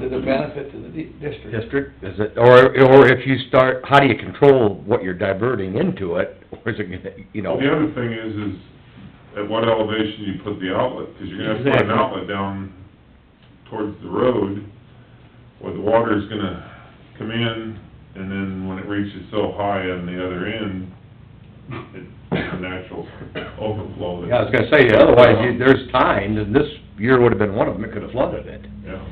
to the benefit to the di- district. district, is it, or, or if you start, how do you control what you're diverting into it, or is it, gonna you know? The other thing is, is at what elevation you put the outlet, because you're gonna have to put an Exactly. outlet down towards the road, where the water's gonna come in, and then when it reaches so high on the other end, it's a natural overflow. that- Yeah, I was gonna say, otherwise, you- there's times, and this year would've been one of them, it could've flooded it. Yeah.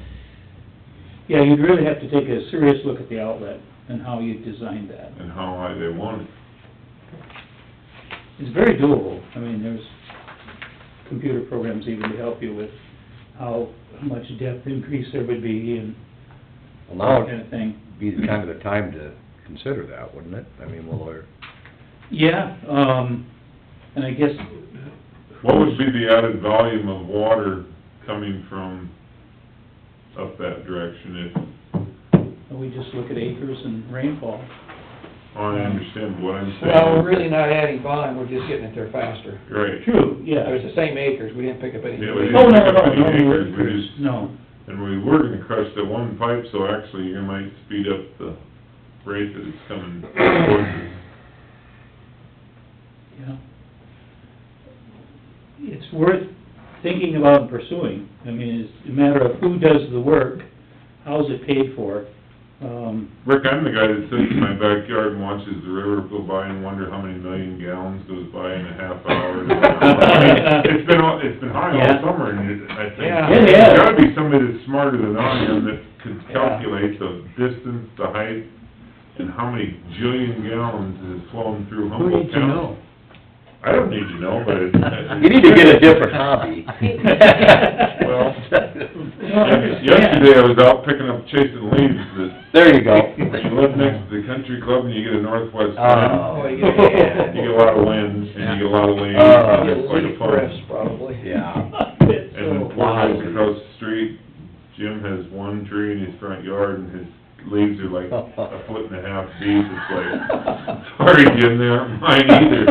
Yeah, you'd really have to take a serious look at the outlet and how you designed that. and how high they want it. It's very doable. I mean, there's computer programs even to help you with how much depth increase there would be and Well, now that kind it'd of thing. be the kind of the time to consider that, wouldn't it? I mean, well, or, Yeah, um, and I guess... What would be the added volume of water coming from up that direction if, We just look at acres and rainfall. I understand what I'm saying. Well, we're really not adding volume, we're just getting it there faster. Right. True, It was the same acres, we didn't pick up any. Yeah, we didn't Oh, no, pick no, up no, any no, acres, we just, No, and we were gonna crush the one pipe, so actually you might speed up the rate that it's coming towards us. yeah. It's worth thinking about and pursuing. I mean, it's a matter of who does the work, how's it paid for, um, Rick, I'm the guy that sits in my backyard and watches the river go by and wonder how many million gallons goes by in a half hour. It's been, all it's been high all Yeah. summer, and it, I think, Yeah. It is. there's gotta be somebody that's smarter than I am that could Yeah. calculate the distance, the height, and how many jillion gallons is flowing through Humboldt County. I don't need to know, but it's... you need to get a different hobby. Well, Well, Yesterday, I was out picking up chasing leaves, that, There you go. when you live next to the country club and you get a northwest wind, Oh, Oh, yeah. you get a lot of wind, and you get a lot of leaves, Oh. and it's quite a Leaf breaths, fun. probably. Yeah. It's And then so- four guys across the street, Jim has one tree in his front yard, and his leaves are like a foot and a half deep, it's like, sorry, Jim, they aren't mine either.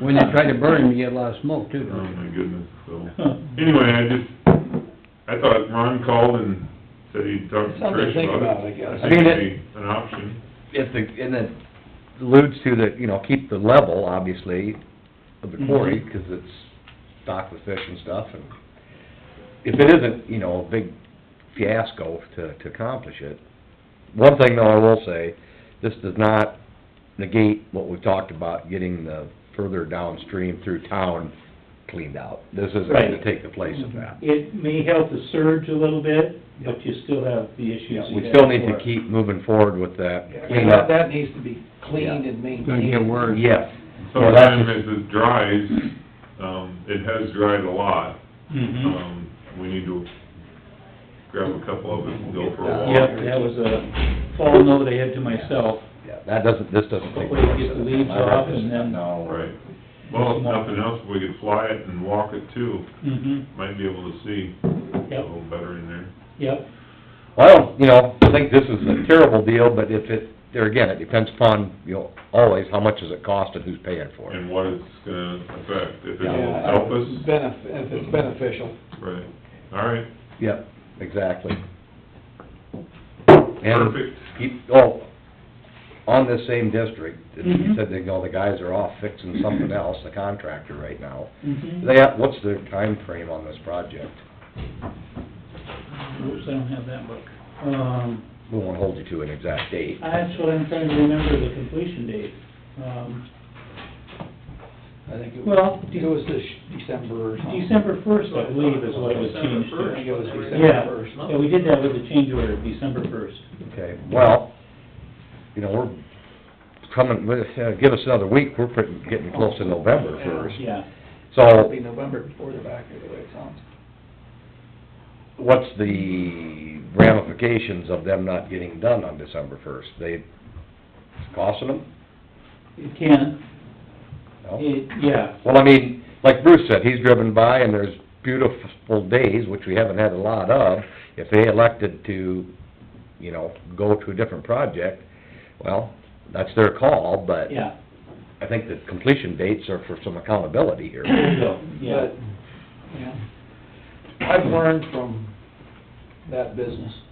When you try to burn them, you get a lot of smoke too, Oh, don't you? my goodness, so, Huh. anyway, I just, I thought Ron called and said he'd talk to Something to Trish think about about, I it. guess. I think I mean, it'd it- be an option. if the, and it alludes to that, you know, keep the level, obviously, of Mm-hmm. the quarry, Mhm. because it's stocked with fish and stuff, and if it isn't, you know, a big fiasco to, to accomplish it. One thing though I will say, this does not negate what we talked about, getting the further downstream through town cleaned out. This isn't gonna Right. take the place of that. Mm-hmm. It may help the surge a little bit, but you still have the issues. you We had still need to before. keep moving forward with that Yeah, that, cleanup. that needs to be cleaned Yeah. and It's gonna get maintained. worse. Yes. Yeah, that's Sometimes just- as it dries, um, it has dried a lot, Hmm. Mhm. um, we need to grab a couple of us and go for a walk. Yep, that was a fall note I had to myself. Yeah, that doesn't, this doesn't take Hopefully it gets the leaves off and then- No. Right. Well, if nothing else, we could fly it and walk it too, Mhm. might be able to see a Yep, little better in there. yep, Well, you know, I think this is a terrible deal, but if it, there again, it depends upon, you know, always, how much does it cost and who's paying for it. And what it's gonna affect, if it'll Yeah, help us, benef- if it's beneficial. right, all right, Yep, exactly. And perfect. keep, oh, on this same district, you Mhm. said, they know, the guys are off fixing something else, the contractor right now. mhm. They, have- what's their time frame on this project? Oops, I don't have that book. Um, We won't hold you to an exact date. that's what I'm trying to remember, the completion date. Um, I think it was, Well, it was this December or something. December first, I believe, is what it was changed I think it to. was Yeah, December first. yeah, we did that with the change order, December first. Okay, well, you know, we're coming, with- uh, give us another week, we're pretty, getting close to November first. Yeah, It'll So, be November before they're back here, the way it sounds. what's the ramifications of them not getting done on December first? They, it's costing them? it can, No? it, yeah, Well, I mean, like Bruce said, he's driven by and there's beautiful days, which we haven't had a lot of. If they elected to, you know, go to a different project, well, that's their call, but yeah, I think the completion dates are for some accountability here. so, yeah. But, yeah. I've learned from that business.